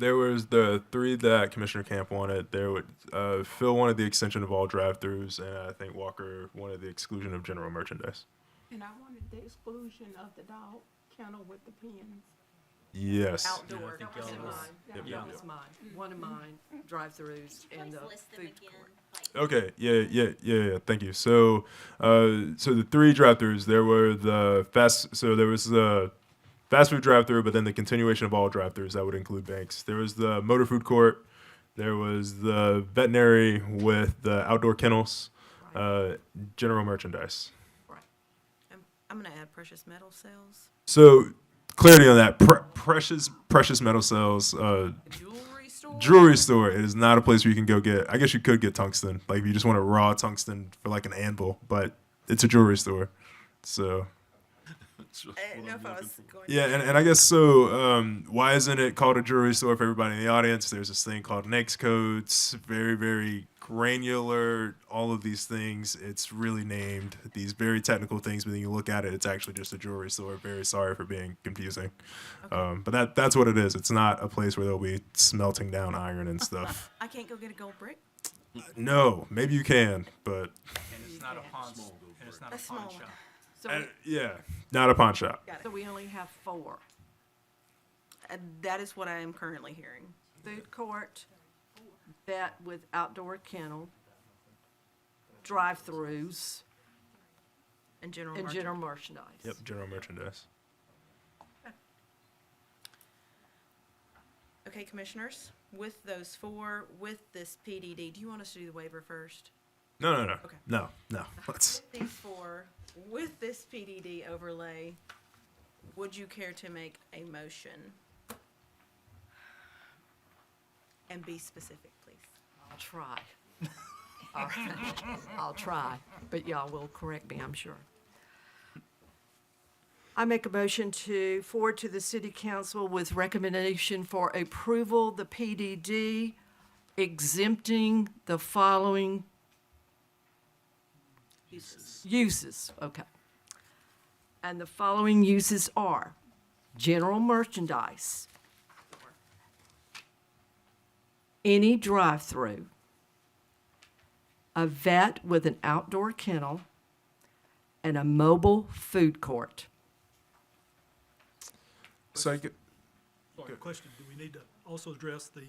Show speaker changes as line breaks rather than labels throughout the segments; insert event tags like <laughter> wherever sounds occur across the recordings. There was the three that Commissioner Camp wanted. There would uh, Phil wanted the extension of all drive-throughs, and I think Walker wanted the exclusion of general merchandise.
And I wanted the exclusion of the dog kennel with the pins.
Yes.
Outdoor,
Yeah, I think
was
y'all
in
was-
mine.
Yep,
That
yep,
was mine, one of mine, drive-throughs and uh,
Please
the
list them
food
again.
court.
Like,
Okay. Yeah. Yeah. Yeah. Yeah. Thank you. So, uh, so the three drive-throughs. There were the fast. So there was the fast food drive-through, but then the continuation of all drive-throughs that would include banks. There was the motor food court. There was the veterinary with the outdoor kennels, uh, general merchandise.
Right.
I'm, I'm gonna add precious metal sales.
So clarity on that. Pre- precious, precious metal sales. Uh,
The Jewelry store?
jewelry store it is not a place where you can go get. I guess you could get tungsten, like if you just want a raw tungsten for like an anvil, but it's a jewelry store. So
I didn't know if I was going.
yeah, and, and I guess so. Um, why isn't it called a jewelry store for everybody in the audience? There's this thing called NAICS codes, very very granular. All of these things, it's really named these very technical things, but then you look at it, it's actually just a jewelry store. Very sorry for being confusing, um, but that that's what it is. It's not a place where they'll be smelting down iron and stuff.
<laughs> I can't go get a gold brick.
No, maybe you can, but
And it's not a pawn, s- and it's not
A
a
small
pawn
one.
shop.
So,
uh,
we-
yeah, not a pawn shop.
Got
so
it.
we only have four.
Uh, That is what I am currently hearing.
Food court, vet with outdoor kennel, drive-throughs,
In general.
and
market.
general merchandise.
Yep, general merchandise.
Okay, commissioners, with those four, with this PDD, do you want us to do the waiver first?
No, no, no,
Okay.
no, no. Let's.
These four, with this PDD overlay, would you care to make a motion? And be specific, please.
I'll try. All right. <laughs> I'll try, but y'all will correct me, I'm sure. I make a motion to forward to the city council with recommendation for approval, the PDD exempting the following
Uses.
uses, okay. And the following uses are general merchandise, any drive-through, a vet with an outdoor kennel, and a mobile food court.
So I get,
Sorry, question, do we need to also address the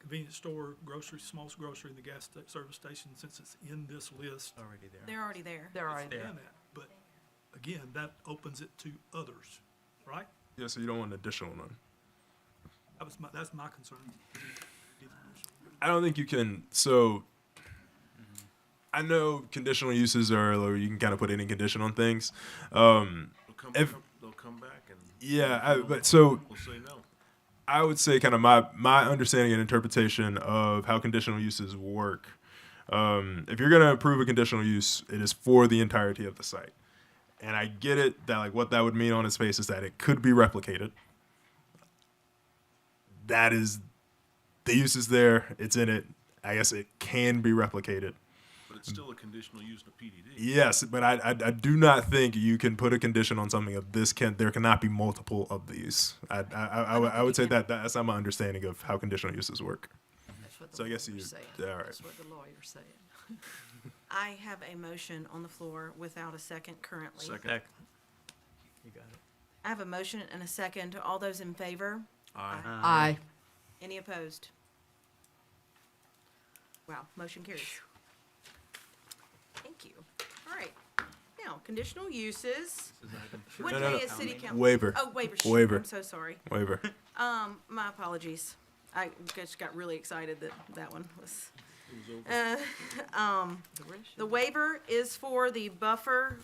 convenience store, grocery, small grocery, and the gas sta- service station, since it's in this list?
Already there.
They're already there.
There are,
And that, But again, that opens it to others, right?
yeah, so you don't want an additional one.
That was my, that's my concern.
I don't think you can. So I know conditional uses are, or you can kind of put any condition on things. Um,
They'll come,
If-
come- they'll come back and
yeah, I, but so
we'll say no.
I would say kind of my my understanding and interpretation of how conditional uses work. Um, if you're going to approve a conditional use, it is for the entirety of the site. And I get it that like what that would mean on its face is that it could be replicated. That is, the use is there. It's in it. I guess it can be replicated.
But it's still a conditional use in a PDD.
Yes, but I, I, I do not think you can put a condition on something of this can there cannot be multiple of these. I I, I, I, would- I would say that that's not my understanding of how conditional uses work.
that's what
So
the
I guess you-
lawyer's saying.
yeah, all right.
That's what the lawyer's saying.
I have a motion on the floor without a second currently.
Second.
You got it.
I have a motion and a second. All those in favor?
Aye.
Aye.
Any opposed? Wow, motion carries. Thank you. All right. Now, conditional uses. What
No, no,
day
no.
is city council?
Waiver.
Oh, waiver. Shoot,
Waiver.
I'm so sorry.
Waiver.
Um, my apologies. I just got really excited that that one was. Uh, <laughs> um,
The rest
The
should-
waiver is for the buffer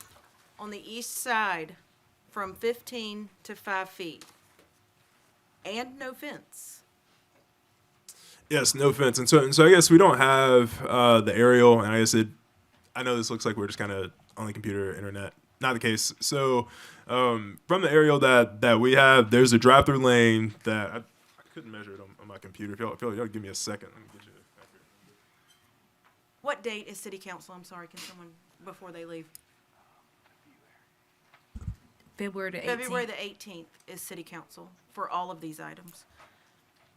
on the east side from 15 to 5 feet. And no fence.
Yes, no fence. And so and so I guess we don't have uh, the aerial and I guess it I know this looks like we're just kind of on the computer internet. Not the case. So um, from the aerial that that we have, there's a drive through lane that I, I couldn't measure it on, on my computer. If y'all, if y'all, y'all give me a second, let me get you.
What date is city council? I'm sorry, can someone, before they leave?
February the 18th.
February the 18th is city council for all of these items.